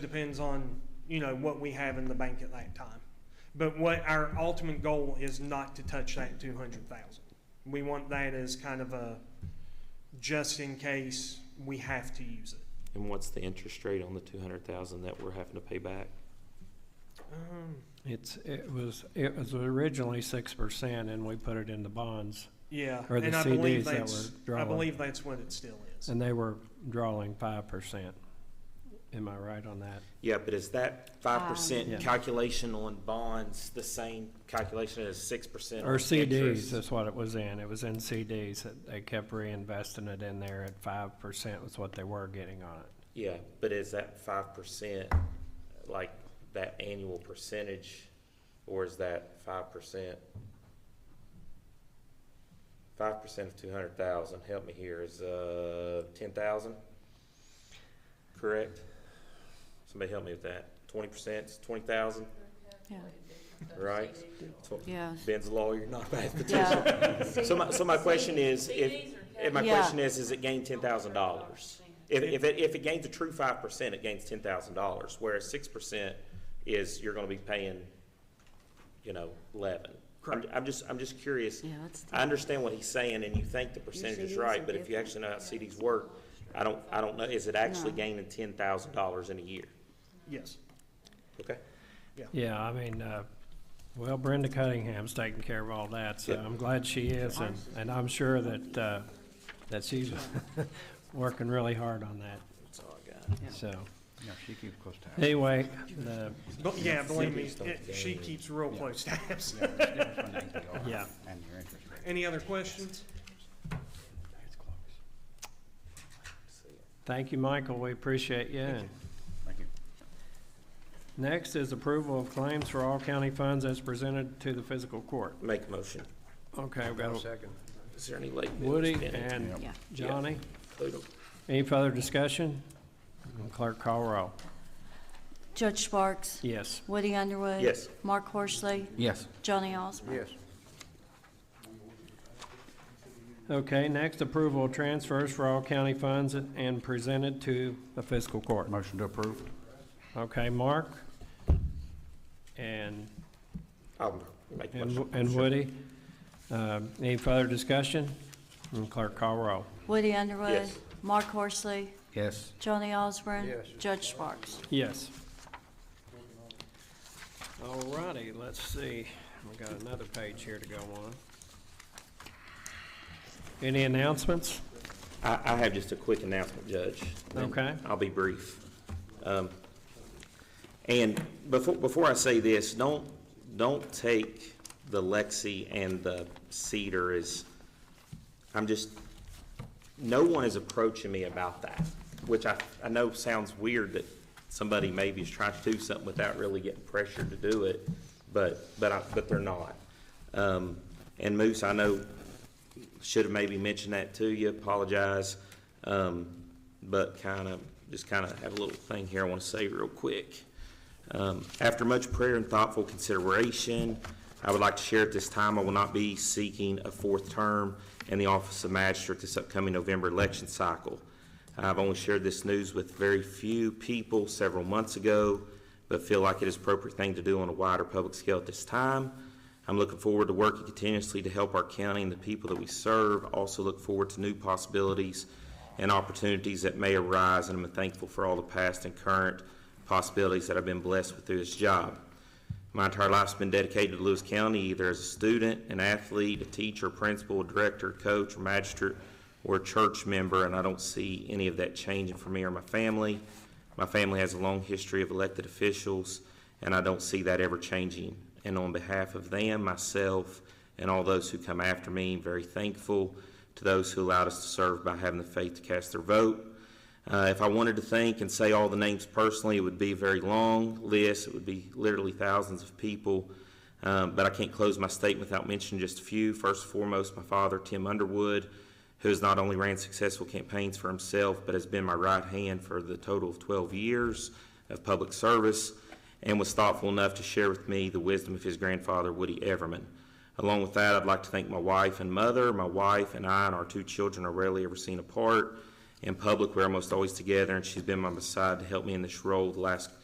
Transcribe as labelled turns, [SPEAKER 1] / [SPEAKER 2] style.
[SPEAKER 1] depends on, you know, what we have in the bank at that time. But what our ultimate goal is not to touch that two hundred thousand. We want that as kind of a, just in case we have to use it.
[SPEAKER 2] And what's the interest rate on the two hundred thousand that we're having to pay back?
[SPEAKER 1] Um,
[SPEAKER 3] It's, it was, it was originally six percent and we put it in the bonds
[SPEAKER 1] Yeah,
[SPEAKER 3] or the
[SPEAKER 1] and I believe
[SPEAKER 3] CDs that
[SPEAKER 1] that's,
[SPEAKER 3] were
[SPEAKER 1] I
[SPEAKER 3] drawing.
[SPEAKER 1] believe that's what it still is.
[SPEAKER 3] And they were drawing five percent. Am I right on that?
[SPEAKER 4] Yeah, but is that five
[SPEAKER 3] Yeah.
[SPEAKER 4] percent calculation on bonds the same calculation as six percent?
[SPEAKER 3] Or CDs is what it was in. It was in CDs. that They kept reinvesting it in there at five percent was what they were getting on it.
[SPEAKER 4] Yeah, but is that five percent, like that annual percentage, or is that five percent? Five percent of two hundred thousand, help me here, is, uh, ten thousand? Correct? Somebody help me with that. Twenty percent, twenty thousand,
[SPEAKER 5] Yeah,
[SPEAKER 4] right? Tw-
[SPEAKER 5] yeah.
[SPEAKER 4] Ben's a lawyer, not a mathematician.
[SPEAKER 5] Yeah,
[SPEAKER 4] So my, so my question is, if, if my
[SPEAKER 5] Yeah.
[SPEAKER 4] question is, is it gain ten thousand dollars? If, if it, if it gains a true five percent, it gains ten thousand dollars, whereas six percent is, you're gonna be paying, you know, eleven. I'm, I'm just, I'm just curious.
[SPEAKER 5] yeah, that's, the-
[SPEAKER 4] I understand what he's saying, and you think the percentage is right, but if you actually know how CDs work, I don't, I don't know, is it actually
[SPEAKER 5] No.
[SPEAKER 4] gaining ten thousand dollars in a year?
[SPEAKER 1] Yes.
[SPEAKER 4] Okay?
[SPEAKER 3] Yeah, I mean, uh, well, Brenda Cunningham's taking care of all that, so
[SPEAKER 4] Yeah.
[SPEAKER 3] I'm glad she is. And, and I'm sure that, uh, that she's working really hard on that,
[SPEAKER 4] That's all I got.
[SPEAKER 3] so.
[SPEAKER 6] Yeah, she keeps close tabs.
[SPEAKER 3] Anyway, the,
[SPEAKER 1] But yeah, believe me,
[SPEAKER 4] CDs don't
[SPEAKER 1] it- she
[SPEAKER 4] gain.
[SPEAKER 1] keeps real
[SPEAKER 6] Yeah.
[SPEAKER 1] close tabs.
[SPEAKER 6] Yeah, it's different from the APR
[SPEAKER 3] Yeah.
[SPEAKER 6] And your interest rate.
[SPEAKER 1] Any other questions?
[SPEAKER 3] thank you, Michael, we appreciate you. And
[SPEAKER 6] Thank you.
[SPEAKER 3] Next is approval of claims for all county funds as presented to the physical court.
[SPEAKER 4] Make a motion.
[SPEAKER 3] Okay, we've got
[SPEAKER 6] Second.
[SPEAKER 4] Is there any late bills
[SPEAKER 3] Woody
[SPEAKER 4] pending?
[SPEAKER 3] and
[SPEAKER 5] yeah.
[SPEAKER 3] Johnny.
[SPEAKER 4] Include 'em.
[SPEAKER 3] Any further discussion? Clerk Colerole.
[SPEAKER 5] Judge Sparks,
[SPEAKER 3] Yes.
[SPEAKER 5] Woody Underwood.
[SPEAKER 4] Yes.
[SPEAKER 5] Mark Horsley,
[SPEAKER 6] Yes.
[SPEAKER 5] Johnny Osborne.
[SPEAKER 6] Yes.
[SPEAKER 3] Okay, next, approval of transfers for all county funds and presented to the fiscal court.
[SPEAKER 6] Motion to approve?
[SPEAKER 3] Okay, Mark? And,
[SPEAKER 4] I'll make a
[SPEAKER 3] and
[SPEAKER 4] motion.
[SPEAKER 3] and Woody? Um, Any further discussion? And Clerk Colerole.
[SPEAKER 5] Woody Underwood.
[SPEAKER 4] Yes.
[SPEAKER 5] Mark Horsley,
[SPEAKER 6] Yes.
[SPEAKER 5] Johnny Osborne. Judge Sparks.
[SPEAKER 3] Yes. All righty, let's see, we got another page here to go on. Any announcements?
[SPEAKER 4] I, I have just a quick announcement, Judge. and
[SPEAKER 3] Okay.
[SPEAKER 4] I'll be brief. Um, And before, before I say this, don't, don't take the Lexi and the Cedar as, I'm just, no one is approaching me about that, which I, I know sounds weird that somebody maybe is trying to do something without really getting pressured to do it, but, but I, but they're not. Um, and Moose, I know should have maybe mentioned that to you, apologize. Um, but kind of, just kind of have a little thing here I want to say real quick. Um, after much prayer and thoughtful consideration, I would like to share at this time, I will not be seeking a fourth term in the office of magistrate this upcoming November election cycle. I've only shared this news with very few people several months ago, but feel like it is appropriate thing to do on a wider public scale at this time. I'm looking forward to working continuously to help our county and the people that we serve. Also look forward to new possibilities and opportunities that may arise, and I'm thankful for all the past and current possibilities that I've been blessed with through this job. My entire life's been dedicated to Lewis County, either as a student, an athlete, a teacher, principal, director, coach, or magistrate, or a church member, and I don't see any of that changing for me or my family. My family has a long history of elected officials, and I don't see that ever changing. And on behalf of them, myself, and all those who come after me, I'm very thankful to those who allowed us to serve by having the faith to cast their vote. Uh, if I wanted to think and say all the names personally, it would be a very long list. It would be literally thousands of people. Um, but I can't close my statement without mentioning just a few. First and foremost, my father, Tim Underwood, who has not only ran successful campaigns for himself, but has been my right hand for the total of 12 years of public service and was thoughtful enough to share with me the wisdom of his grandfather, Woody Everman. Along with that, I'd like to thank my wife and mother. My wife and I and our two children are rarely ever seen apart, in public. We're almost always together, and she's been by my side to help me in this role the last